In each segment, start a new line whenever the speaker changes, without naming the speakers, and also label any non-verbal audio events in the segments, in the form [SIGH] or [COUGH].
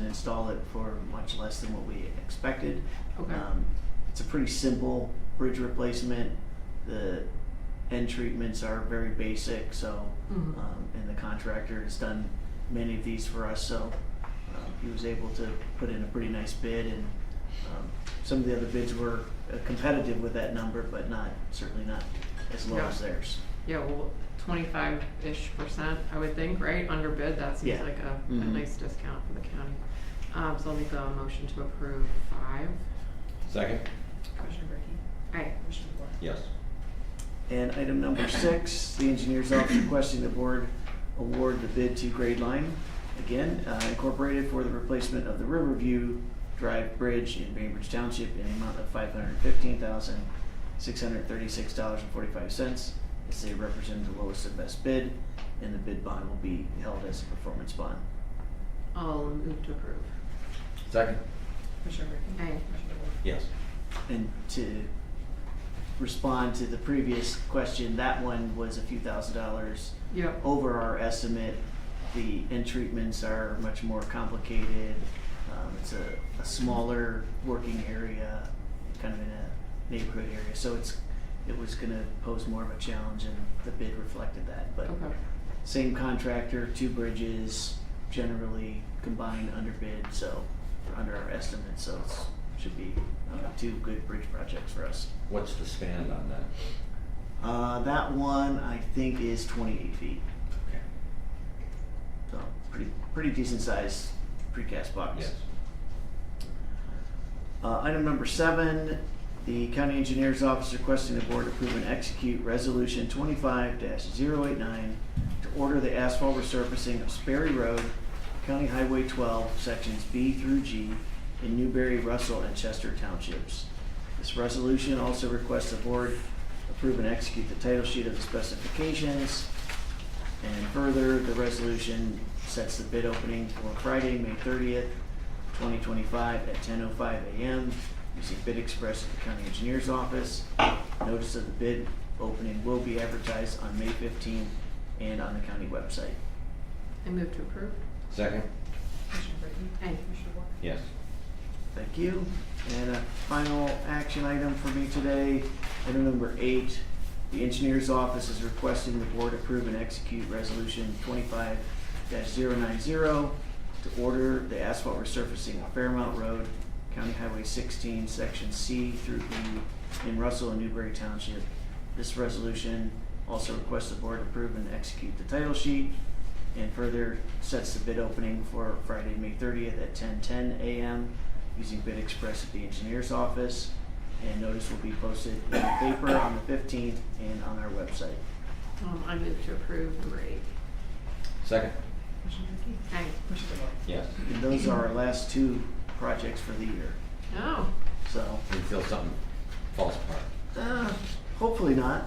install it for much less than what we expected.
Okay.
Um, it's a pretty simple bridge replacement. The end treatments are very basic, so,
Mhm.
um, and the contractor has done many of these for us, so, um, he was able to put in a pretty nice bid and, um, some of the other bids were uh, competitive with that number, but not, certainly not as low
Yeah.
as theirs.
Yeah, well, twenty-five-ish percent, I would think, right, under bid, that seems
Yeah.
like a, a
Mhm.
nice discount for the county. Um, so I'll make a motion to approve five.
Second?
Commissioner Brackey,
Aye.
Commissioner DeBoer.
Yes.
And item number six, the engineer's office requesting the board award the bid to Grade Line, again, uh, Incorporated for the replacement of the Riverview Drive Bridge in Bainbridge Township in the amount of five hundred fifteen thousand, six hundred thirty-six dollars and forty-five cents. As they represent the lowest and best bid, and the bid bond will be held as a performance bond.
I'll move to approve.
Second?
Commissioner Brackey.
Aye.
Commissioner DeBoer.
Yes.
And to respond to the previous question, that one was a few thousand dollars
Yep,
over our estimate. The end treatments are much more complicated. Um, it's a, a smaller working area, kind of in a neighborhood area, so it's, it was gonna pose more of a challenge and the bid reflected that, but
okay,
same contractor, two bridges, generally combined under bid, so, or under our estimate, so it's, should be, uh, two good bridge projects for us.
What's the span on that?
Uh, that one, I think, is twenty-eight feet.
Okay.
So pretty pretty decent sized precast box.
Yes.
Uh, item number seven, the county engineer's office requesting the board approve and execute resolution twenty-five 89 to order the asphalt resurfacing of Sperry Road, County Highway twelve, sections B through G in Newberry, Russell, and Chester townships. This resolution also requests the board approve and execute the title sheet of the specifications, and further, the resolution sets the bid opening for Friday, May thirtieth, twenty twenty-five at ten oh five AM using Bid Express at the county engineer's office. Notice of the bid opening will be advertised on May fifteenth and on the county website.
I move to approve.
Second?
Commissioner Brackey.
Aye.
Commissioner DeBoer.
Yes.
Thank you. And a final action item for me today, item number eight. The engineer's office is requesting the board approve and execute resolution twenty-five 90 to order the asphalt resurfacing of Fairmount Road, County Highway sixteen, section C through E in Russell and Newberry Township. This resolution also requests the board approve and execute the title sheet and further sets the bid opening for Friday, May thirtieth at ten ten AM using Bid Express at the engineer's office. And notice will be posted in the paper on the fifteenth and on our website.
Um, I move to approve number eight.
Second?
Commissioner Brackey.
Aye.
Commissioner DeBoer.
Yes.
And those are our last two projects for the year,
Oh,
so,
Until something falls apart.
uh, hopefully not.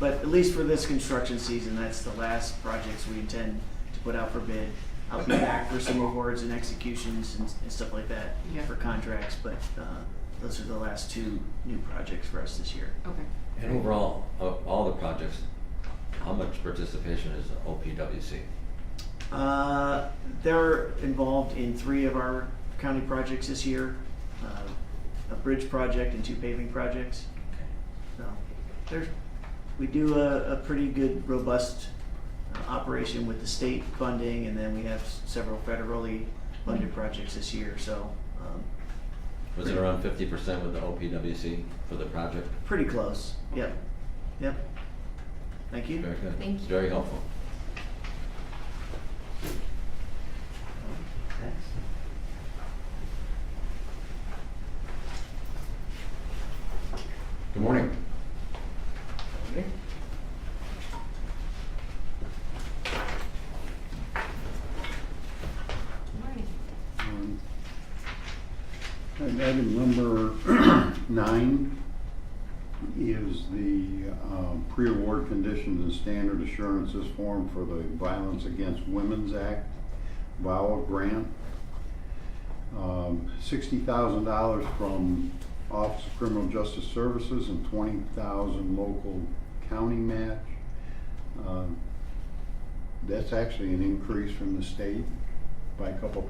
But at least for this construction season, that's the last projects we intend to put out for bid. I'll be back for some awards and executions and, and stuff like that
Yeah.
for contracts, but, uh, those are the last two new projects for us this year.
okay.
And overall, of all the projects, how much participation is OPWC?
Uh, They're involved in three of our county projects this year, uh, a bridge project and two paving projects. So there's, we do a, a pretty good robust uh, operation with the state funding and then we have s- several federally funded projects this year, so um,
Was it around fifty percent with the OPWC for the project?
pretty close, yep, yep. Thank you.
Very good.
Thank you.
Very helpful. Good morning.
Okay.
Um, And item number [CLEARS THROAT] nine is the um, pre-award conditions and standard assurances form for the Violence Against Women's Act VAWA grant. Um, Sixty thousand dollars from Office of Criminal Justice Services and twenty thousand local county match. Uh, Um, That's actually an increase from the state by a couple